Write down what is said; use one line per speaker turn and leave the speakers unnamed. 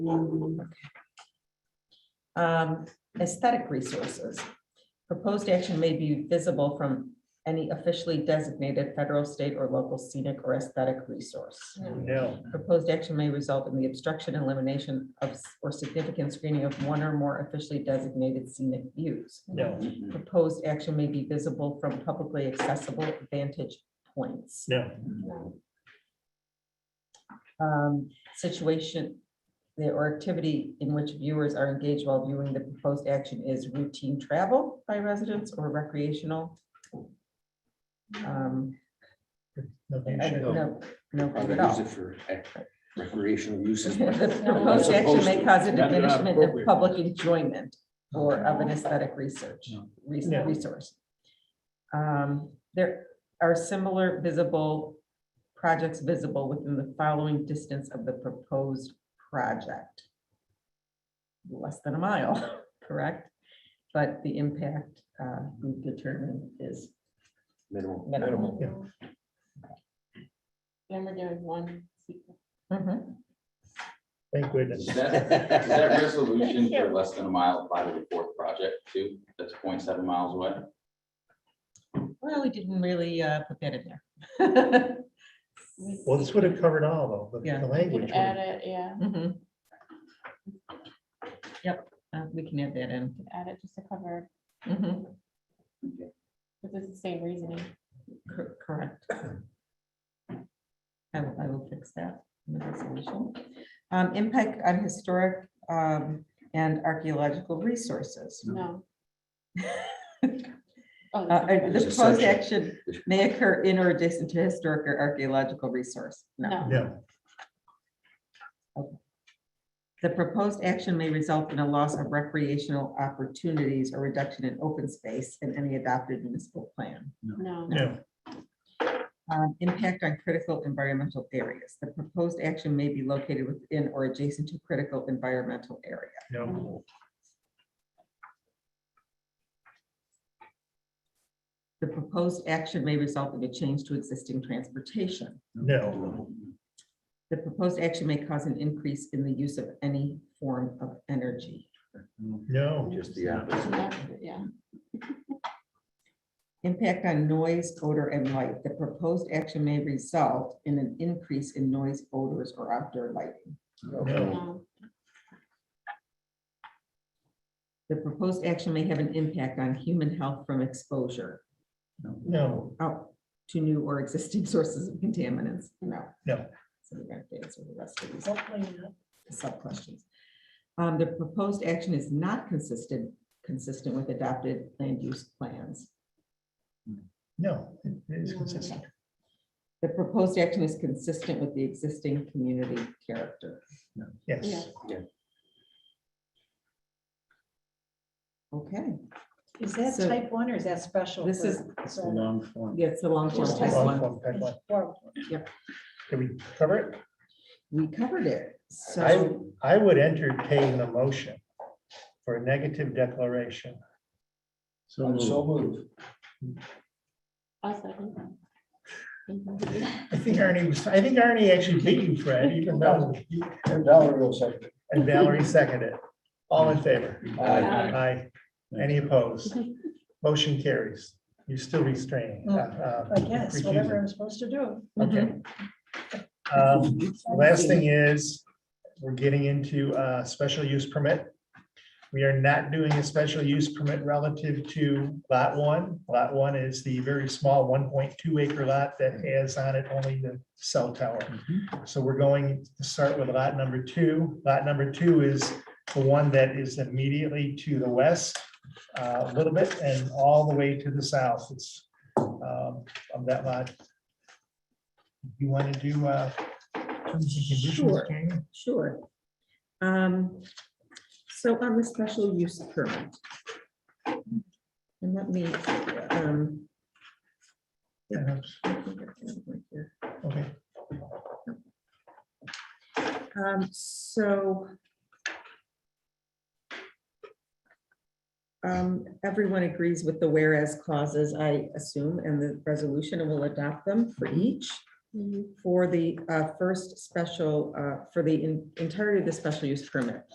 Um, aesthetic resources. Proposed action may be visible from any officially designated federal, state, or local scenic or aesthetic resource.
No.
Proposed action may result in the obstruction, elimination of, s- or significant screening of one or more officially designated scenic views.
No,
Proposed action may be visible from publicly accessible vantage points.
no,
um, situation the- or activity in which viewers are engaged while viewing the proposed action is routine travel by residents or recreational. Um, I- I-
no.
No, no,
Or
not
they
at
use
all.
it for ec- recreational uses.
The proposed action may cause a diminishment of public enjoyment or of an aesthetic research, res-
No.
resource. Um, There are similar visible projects visible within the following distance of the proposed project. Less than a mile, correct? But the impact uh, we determine is
Minimal.
minimal.
Remember doing one. secret.
Mhm.
Thank
Is
goodness.
that is that resolution for less than a mile applied to the fourth project too? That's 0.7 miles away.
Well, we didn't really uh, put that in there.
We-
Well, this would have covered all though, the-
Yeah.
the
we
language.
Could
would-
add it, yeah,
Mhm. Yep, uh, we can add that in.
could add it just to cover,
Mhm,
because it's the same reasoning.
cor- Correct. I will, I will fix that. in the resolution. Um, Impact on historic um, and archaeological resources.
No.
Uh,
Oh,
uh,
that's-
The
There's a
proposed
section.
action may occur in or adjacent to historic or archaeological resource. No.
No,
No,
The proposed action may result in a loss of recreational opportunities or reduction in open space in any adopted municipal plan.
no,
no,
Um, Impact on critical environmental areas. The proposed action may be located within or adjacent to critical environmental area.
no.
The proposed action may result in a change to existing transportation.
No.
The proposed action may cause an increase in the use of any form of energy.
No.
Just the opposite.
no, yeah,
Impact on noise, odor, and light. The proposed action may result in an increase in noise, odors, or outdoor lighting.
No.
no,
The proposed action may have an impact on human health from exposure.
No.
out to new or existing sources of contaminants? No.
No.
So we're going to answer the rest of these
Um,
sub-questions. Um, The proposed action is not consistent, consistent with adopted land use plans.
No, it is consistent.
The proposed action is consistent with the existing community character.
Yes.
yeah.
Okay,
Is that
So-
type one or is that special?
This
for
is-
solar?
that's the long form
Just
type
type
one.
Long form type one.
Well,
Did we cover it?
We covered it,
I,
so
I would entertain the motion for a negative declaration.
So moved.
I'll second.
I think Arnie was, I think Arnie actually beat you, Fred, even though,
And Valerie will second.
and Valerie seconded. All in favor?
Aye.
Aye.
Aye. Any opposed? Motion carries. You're still restraining. uh, uh,
Oh, I guess, whatever
recusing.
I'm supposed to do.
Okay. Um, Last thing is, we're getting into a special use permit. We are not doing a special use permit relative to lot one. Lot one is the very small one point two acre lot that has on it only the cell tower. So we're going to start with lot number two. Lot number two is the one that is immediately to the west uh, a little bit and all the way to the south. It's um, of that lot. You want to do uh, terms and conditions,
Sure.
Jamie?
sure. Um, So on the special use permit. And let me, um,
Yeah,
I think I have it right here.
Okay,
Um, so. Um, everyone agrees with the whereas clauses, I assume, and the resolution, and we will adopt them for each.
Mhm.
for the uh, first special, uh, for the en- entirety of the special use permit.